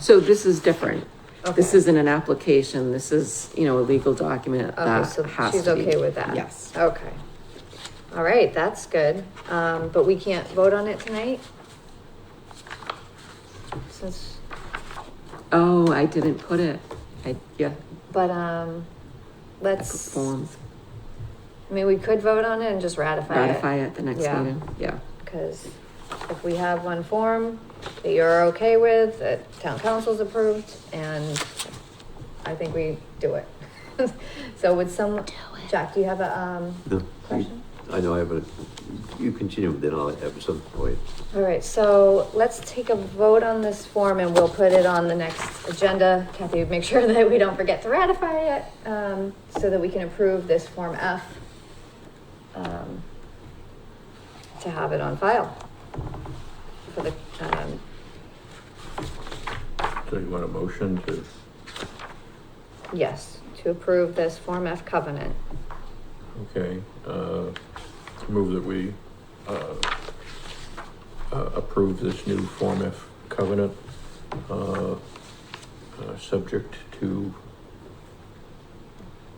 So this is different. This Okay. isn't an application, this is, you know, a legal document Okay, that so has she's to be- okay with that? Yes. Okay. All right, that's good. Um, but we can't vote on it tonight? Since, Oh, I didn't put it. I, yeah, but, um, I put let's, I forms, mean, we could vote on it and just ratify it. ratify it at the next Yeah. meeting, yeah. Cause if we have one form that you're okay with, that town council's approved, and I think we do it. So would some, Jack, do you have a, um, No, question? I know, I have a, you continue, then I'll have some point. All right, so let's take a vote on this form and we'll put it on the next agenda. Kathy, make sure that we don't forget to ratify it, um, so that we can approve this Form F. um, To have it on file. For the, um, So you want a motion to, yes, to approve this Form F covenant. okay, uh, move that we, uh, uh, approve this new Form F covenant, uh, uh, subject to,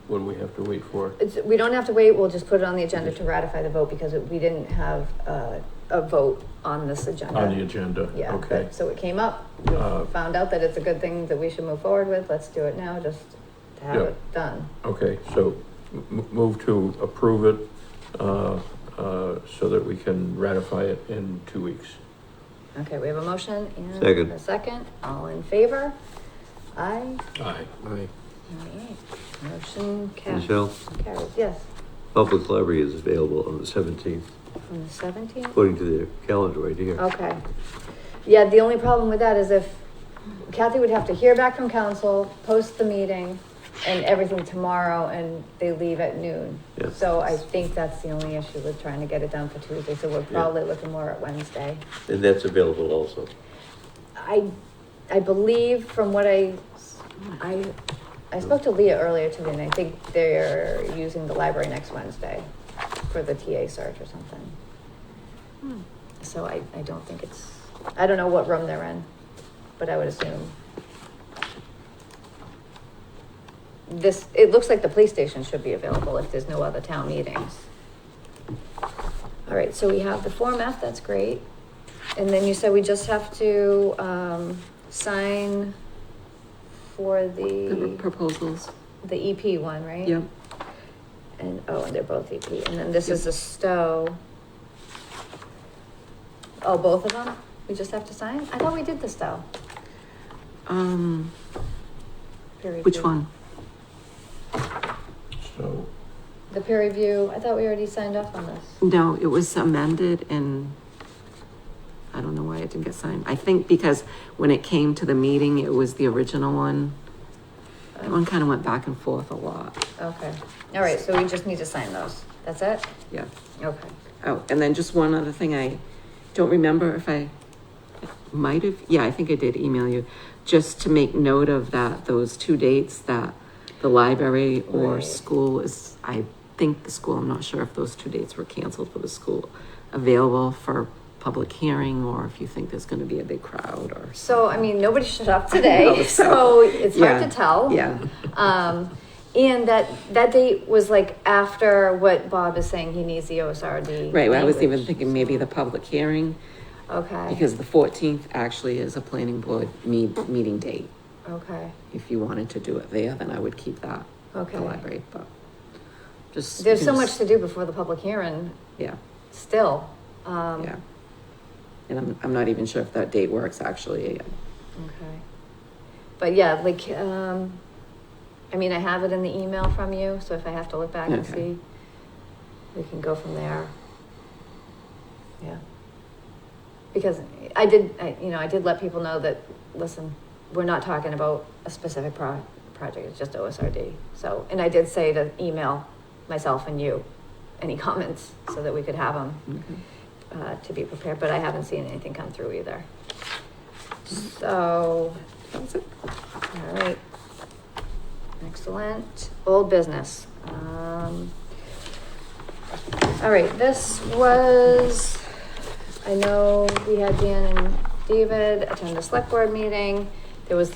what do we have to wait for? It's, we don't have to wait, we'll just put it on the agenda to ratify the vote because we didn't have, uh, a vote on this agenda. On the agenda, Yeah, okay. but, so it came up, we Uh, found out that it's a good thing that we should move forward with, let's do it now, just to have Yeah. it done. Okay, so m- move to approve it, uh, uh, so that we can ratify it in two weeks. Okay, we have a motion and Second. a second, all in favor? Aye, Aye. Aye. alright, motion carries, Michelle, carries, yes, Public Library is available on the seventeenth, from the seventeenth, according to their calendar right here. okay. Yeah, the only problem with that is if Kathy would have to hear back from council, post the meeting and everything tomorrow and they leave at noon. Yeah. So I think that's the only issue with trying to get it done for Tuesday, so we're probably looking more at Wednesday. And that's available also. I, I believe from what I, I, I spoke to Leah earlier today and I think they're using the library next Wednesday for the TA search or something. Hmm. So I, I don't think it's, I don't know what room they're in, but I would assume. This, it looks like the police station should be available if there's no other town meetings. All right, so we have the Form F, that's great. And then you said we just have to, um, sign for The the, proposals, the EP one, right? yep, And, oh, and they're both EP, and then this is the Stowe. Oh, both of them? We just have to sign? I thought we did the Stowe. um, peer which review. one? So, The peer review, I thought we already signed off on this. No, it was amended and I don't know why it didn't get signed. I think because when it came to the meeting, it was the original one. That one kind of went back and forth a lot, Okay, all right, so we just need to sign those. That's it? yeah. Okay. Oh, and then just one other thing, I don't remember if I might have, yeah, I think I did email you, just to make note of that, those two dates that the library or Right. school is, I think the school, I'm not sure if those two dates were canceled for the school, available for public hearing, or if you think there's gonna be a big crowd or. So, I mean, nobody shut up I know, today, so it's hard yeah, to tell. Yeah, Um, and that, that date was like after what Bob is saying, he needs the OSRD. right, well, I was even language. thinking maybe the public hearing, Okay, because the fourteenth actually is a planning board me- meeting date. okay. if you wanted to do it there, then I would keep that, Okay. the library, but just. There's so just- much to do before the public hearing Yeah, still. Um, yeah. And I'm, I'm not even sure if that date works, actually. Okay. But yeah, like, um, I mean, I have it in the email from you, so if I have to look back and Okay. see, we can go from there. Yeah. Because I did, I, you know, I did let people know that, listen, we're not talking about a specific pro- project, it's just OSRD. So, and I did say to email myself and you, any comments, so that we could have them Okay. uh, to be prepared, but I haven't seen anything come through either. So, That's it. all right. Excellent. Old business. Um, all right, this was, I know we had Dan and David attend the select board meeting. there was